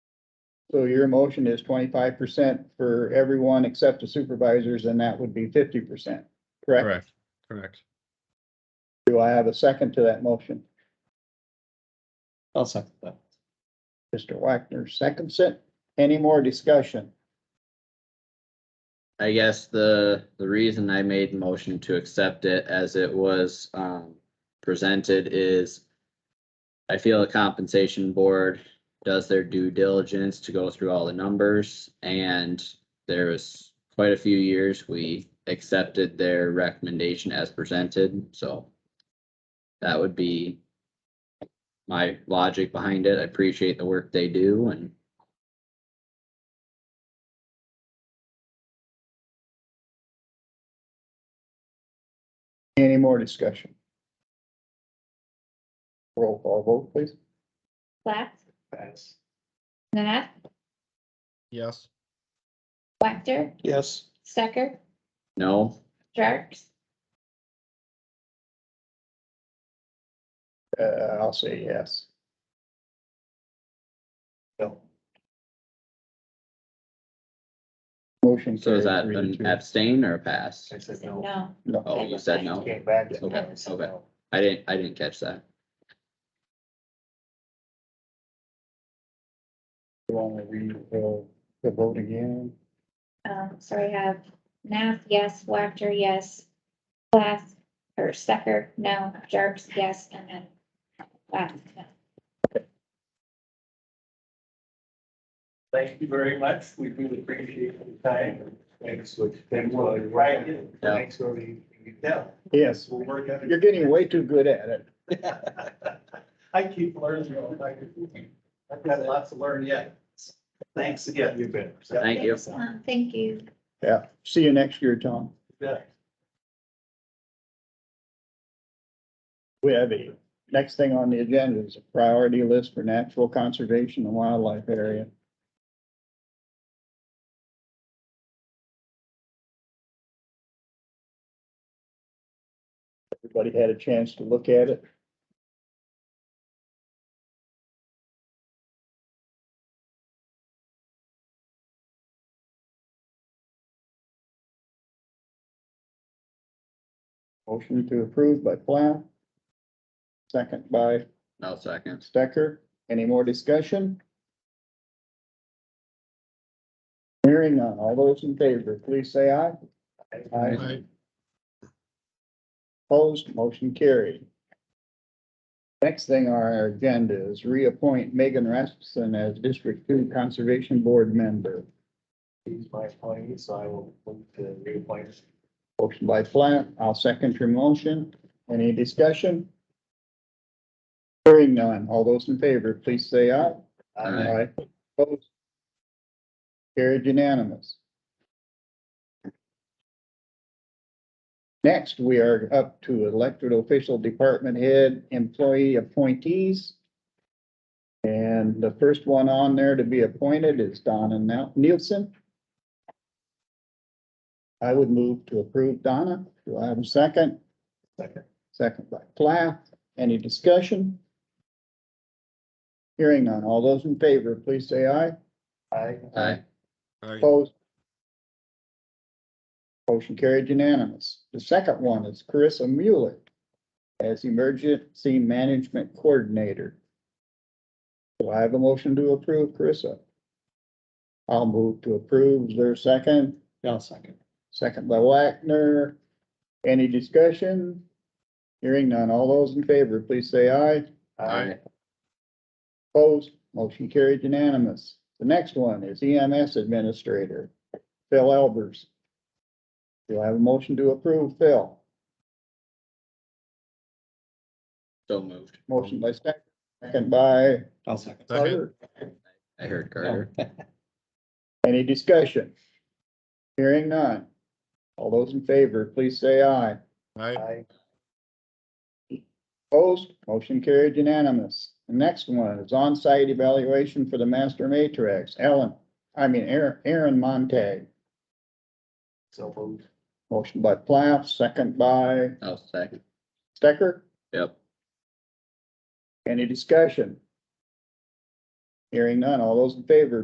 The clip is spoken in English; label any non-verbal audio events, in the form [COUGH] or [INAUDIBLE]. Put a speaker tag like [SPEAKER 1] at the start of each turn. [SPEAKER 1] So your motion is twenty-five percent for everyone except the supervisors, and that would be fifty percent, correct?
[SPEAKER 2] Correct, correct.
[SPEAKER 1] Do I have a second to that motion?
[SPEAKER 3] I'll second that.
[SPEAKER 1] Mr. Wagner seconds it. Any more discussion?
[SPEAKER 4] I guess the, the reason I made the motion to accept it as it was, um, presented is I feel the compensation board does their due diligence to go through all the numbers and there was quite a few years we accepted their recommendation as presented, so that would be my logic behind it. I appreciate the work they do and
[SPEAKER 1] Any more discussion? Roll call vote, please.
[SPEAKER 5] Plath,
[SPEAKER 3] Yes.
[SPEAKER 5] Nanette,
[SPEAKER 2] Yes.
[SPEAKER 5] Wactor,
[SPEAKER 3] Yes.
[SPEAKER 5] Stecker,
[SPEAKER 4] no,
[SPEAKER 5] Jarks,
[SPEAKER 1] Uh, I'll say yes. No. Motion.
[SPEAKER 4] so is that
[SPEAKER 1] carries three to
[SPEAKER 4] an
[SPEAKER 1] two.
[SPEAKER 4] abstain or a pass?
[SPEAKER 3] said
[SPEAKER 5] no.
[SPEAKER 4] Oh, you said no.
[SPEAKER 3] Came back. to
[SPEAKER 4] Okay,
[SPEAKER 3] that, so
[SPEAKER 4] okay.
[SPEAKER 3] no.
[SPEAKER 4] I didn't, I didn't catch that.
[SPEAKER 1] You wanna read uh, the vote again?
[SPEAKER 5] Um, so I have Nath, yes, Wactor, yes, Plath, or Stecker, no, Jarks, yes, and then Plath, no.
[SPEAKER 6] Thank you very much. We really appreciate the time. Thanks, which. And we'll write it.
[SPEAKER 4] Yeah.
[SPEAKER 6] Thanks, so we, yeah,
[SPEAKER 1] Yes,
[SPEAKER 6] we'll work on
[SPEAKER 1] you're getting way too good at it.
[SPEAKER 6] it. [LAUGHS] I keep learning. all the time. I've got lots to learn yet. Thanks again. You've been.
[SPEAKER 4] Thank you.
[SPEAKER 5] Um, thank you.
[SPEAKER 1] Yeah, see you next year, Tom. We have a, next thing on the agenda is a priority list for natural conservation and wildlife area. Everybody had a chance to look at it. Motion to approve by Plath. Second by
[SPEAKER 4] No second.
[SPEAKER 1] Stecker. Any more discussion? Hearing none. All those in favor, please say aye. Aye. Opposed, motion carried. Next thing on our agenda is reappoint Megan Rasmussen as District Two Conservation Board member.
[SPEAKER 6] He's my appointee, so I will move to reappoint.
[SPEAKER 1] Motion by Platt, I'll second your motion. Any discussion? Hearing none. All those in favor, please say aye.
[SPEAKER 4] Aye.
[SPEAKER 1] Opposed? Carried unanimous. Next, we are up to elected official department head employee appointees. And the first one on there to be appointed is Donna Nel- Nielsen. I would move to approve Donna. Do I have a second?
[SPEAKER 6] Second.
[SPEAKER 1] Second by Plath. Any discussion? Hearing none. All those in favor, please say aye.
[SPEAKER 6] Aye.
[SPEAKER 4] Aye.
[SPEAKER 2] Aye.
[SPEAKER 1] Opposed? Motion carried unanimous. The second one is Carissa Mueller as Emergency Management Coordinator. Do I have a motion to approve Carissa? I'll move to approve. Is there a second?
[SPEAKER 3] I'll second.
[SPEAKER 1] Second by Wagner. Any discussion? Hearing none. All those in favor, please say aye.
[SPEAKER 4] Aye.
[SPEAKER 1] Opposed, motion carried unanimous. The next one is EMS Administrator, Phil Elbers. Do I have a motion to approve, Phil?
[SPEAKER 4] So moved.
[SPEAKER 1] Motion by second, second by
[SPEAKER 3] I'll second.
[SPEAKER 2] Second.
[SPEAKER 1] Carter.
[SPEAKER 4] I heard Carter.
[SPEAKER 1] Any discussion? Hearing none. All those in favor, please say aye.
[SPEAKER 2] Aye.
[SPEAKER 6] Aye.
[SPEAKER 1] Opposed, motion carried unanimous. The next one is on-site evaluation for the master matrix, Ellen, I mean, Aaron, Aaron Montag.
[SPEAKER 6] So moved.
[SPEAKER 1] Motion by Plath, second by
[SPEAKER 4] No second.
[SPEAKER 1] Stecker.
[SPEAKER 4] Yep.
[SPEAKER 1] Any discussion? Hearing none, all those in favor,